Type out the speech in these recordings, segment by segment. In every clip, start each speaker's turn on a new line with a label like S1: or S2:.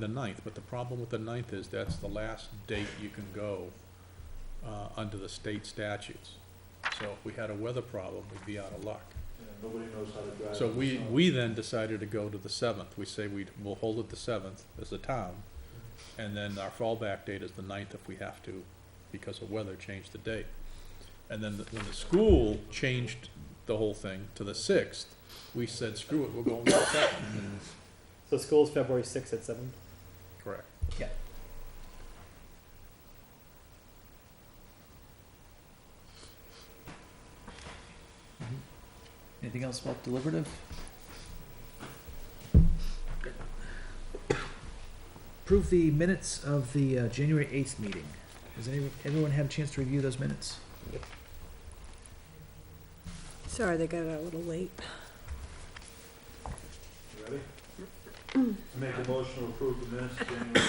S1: the ninth, but the problem with the ninth is that's the last date you can go uh, under the state statutes. So if we had a weather problem, we'd be out of luck.
S2: Nobody knows how to drive.
S1: So we, we then decided to go to the seventh. We say we, we'll hold it the seventh as a town, and then our fallback date is the ninth if we have to, because of weather, change the date. And then the- when the school changed the whole thing to the sixth, we said, screw it, we're going to the seventh.
S3: So school's February sixth at seven.
S1: Correct.
S4: Mm-hmm. Anything else about deliberative? Approve the minutes of the uh, January 8th meeting. Has any, everyone had a chance to review those minutes?
S5: Sorry, they got out a little late.
S2: You Ready?
S6: Mm.
S2: Make a motion to approve the minutes, of January.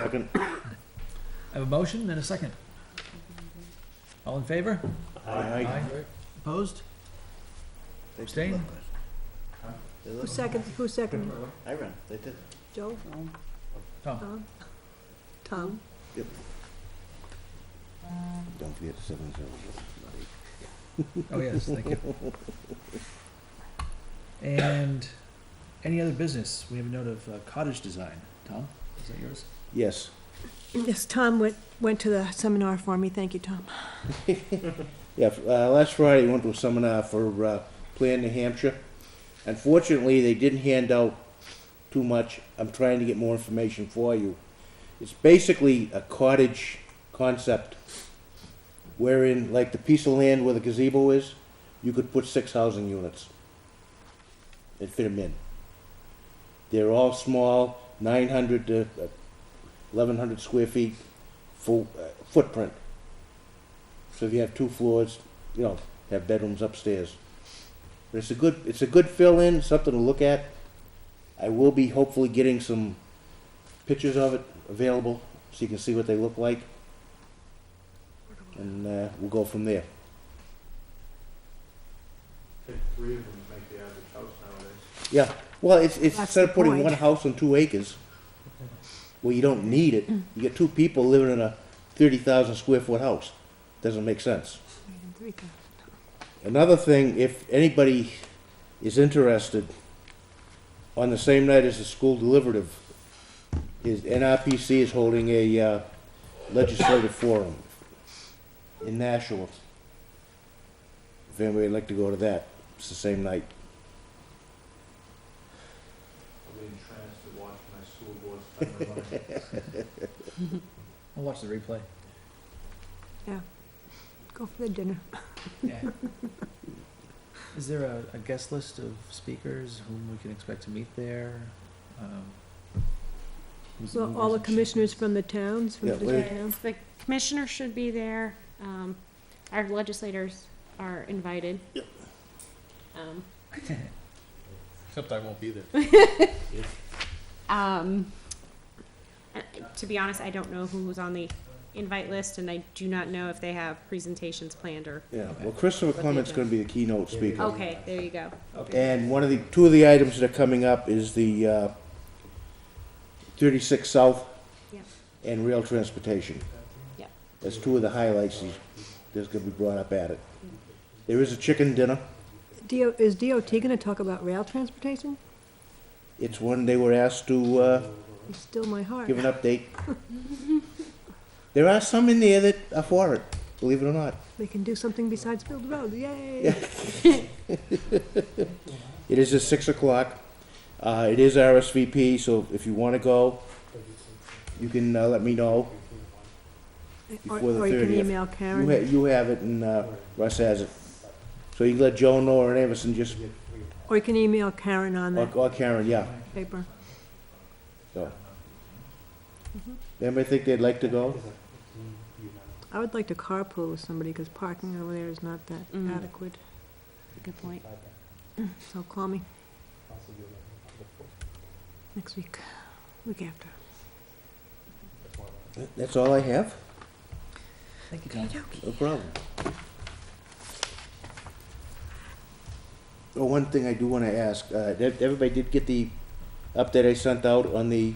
S7: Second.
S4: I have a motion and a second. All in favor? Opposed?
S7: They did
S4: Abstain?
S7: look good. They
S5: Who
S7: look-
S5: seconded, who seconded?
S7: I ran, they did.
S5: Joe?
S4: Tom?
S5: Tom? Tom?
S7: Don't forget seven zero.
S4: Oh, yes, thank you. And any other business? We have a note of uh, cottage design. Tom, is that yours?
S7: Yes,
S5: Yes, Tom went, went to the seminar for me. Thank you, Tom.
S7: yeah, f- uh, last Friday, we went to a seminar for, uh, Plan New Hampshire. Unfortunately, they didn't hand out too much. I'm trying to get more information for you. It's basically a cottage concept wherein, like the piece of land where the gazebo is, you could put six housing units and fit them in. They're all small, 900 to uh, 1,100 square feet full, uh, footprint. So if you have two floors, you know, have bedrooms upstairs. But it's a good, it's a good fill-in, something to look at. I will be hopefully getting some pictures of it available, so you can see what they look like. And uh, we'll go from there.
S2: Take three of them to make the average house nowadays.
S7: Yeah, well, it's, it's
S5: That's
S7: instead
S5: the
S7: of putting
S5: point.
S7: one house on two acres, well, you don't need it.
S5: Mm.
S7: You get two people living in a thirty thousand square foot house. Doesn't make sense. Another thing, if anybody is interested, on the same night as the school deliberative, is NRPC is holding a uh, legislative forum in Nashua. If anybody would like to go to that, it's the same night.
S2: I'll be entranced to watch my school board spend their money.
S4: I'll watch the replay.
S5: Go for the dinner.
S4: Yeah. Is there a, a guest list of speakers whom we can expect to meet there? Um, who's
S5: Well,
S4: movers
S5: all the
S4: and
S5: commissioners
S4: shakers?
S5: from the towns, from
S7: Yeah,
S5: the
S7: Larry.
S5: different towns.
S6: The commissioner should be there, um, our legislators are invited. Um,
S1: Except I won't be there.
S6: um, uh, to be honest, I don't know who was on the invite list, and I do not know if they have presentations planned or,
S7: Yeah,
S4: Okay.
S7: well, Christopher
S6: But they
S7: Clement's
S6: don't.
S7: gonna be the keynote speaker.
S6: okay, there you go.
S4: Okay.
S7: And one of the, two of the items that are coming up is the, uh, thirty-six South
S6: Yep.
S7: and rail transportation.
S6: Yep.
S7: That's two of the highlights he's- that's gonna be brought up at it. There is a chicken dinner.
S5: DO, is DOT gonna talk about rail transportation?
S7: It's one they were asked to, uh,
S5: It's still my heart.
S7: give an update. There are some in there that are for it, believe it or not.
S5: They can do something besides build roads, yay!
S7: It is at six o'clock. Uh, it is RSVP, so if you wanna go, you can, uh, let me know.
S5: Or,
S7: Before the
S5: or you can
S7: 30th.
S5: email
S7: You ha-
S5: Karen,
S7: you have it and, uh, Russ has it. So you can let Joan know or Anderson just,
S5: or you can email Karen on
S7: or
S5: that
S7: or Karen, yeah,
S5: paper.
S7: so. Anybody think they'd like to go?
S5: I would like to carpool with somebody, because parking over there is not that
S6: Mm.
S5: adequate,
S6: Good point.
S5: so call me next week, week after.
S7: That's all I have,
S4: Thank you, Tom.
S7: no problem. Oh, one thing I do wanna ask, uh, ev- everybody did get the update I sent out on the